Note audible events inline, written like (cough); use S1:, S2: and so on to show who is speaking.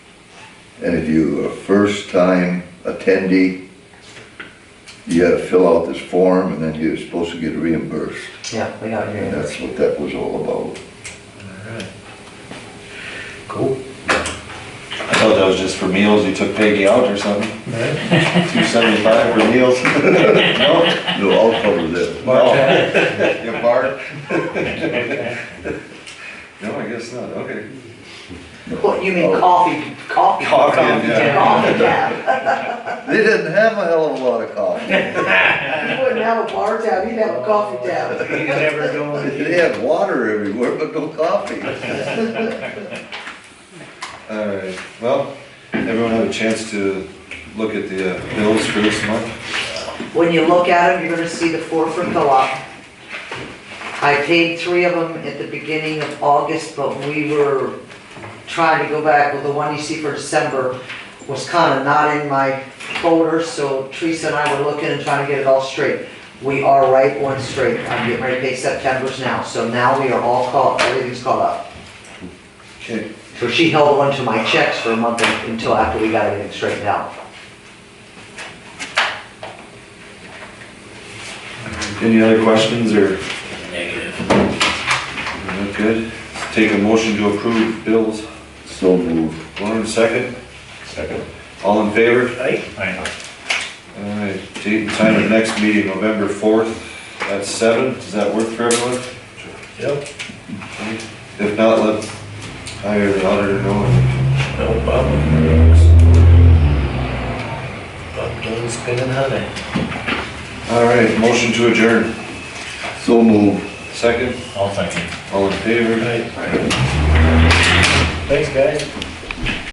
S1: And if you're a first-time attendee, you gotta fill out this form and then you're supposed to get reimbursed.
S2: Yeah, we got
S1: And
S2: here.
S1: that's what that was all about.
S3: Alright. Cool.
S4: I thought that was just for meals, you took Peggy out or something,
S3: Alright.
S4: two seventy-five for meals? No?
S1: No, I'll cover that.
S4: No. (laughs) You bark? No, I guess not, okay.
S2: What, you mean coffee, coffee?
S4: Coffee, yeah.
S2: Coffee, yeah.
S1: They didn't have a hell of a lot of coffee.
S2: You wouldn't have a bar tab, you'd have a coffee tab.
S3: You never know.
S1: They had water everywhere, but no coffee.
S4: All right, well, everyone have a chance to look at the uh, bills for this month?
S2: When you look at them, you're gonna see the four for co-op. I paid three of them at the beginning of August, but we were trying to go back, well, the one you see for December was kinda not in my folder, so Teresa and I were looking and trying to get it all straight. We are right one straight, I'm getting ready to pay September's now, so now we are all caught, everything's caught up.
S4: Okay,
S2: So she held on to my checks for a month until after we got everything straightened out.
S4: any other questions or,
S3: Negative.
S4: not good? Take a motion to approve bills,
S1: So moved.
S4: Lauren, second,
S3: Second.
S4: all in favor?
S3: Aye. Aye.
S4: All right, date and time of next meeting, November fourth, at seven, does that work for everyone?
S3: Yep.
S4: If not, let, I or the auditor know.
S3: No problem. Bob done spinning honey.
S4: All right, motion to adjourn,
S1: So moved.
S4: second,
S3: All thinking.
S4: all in favor?
S3: Aye. Thanks, guys.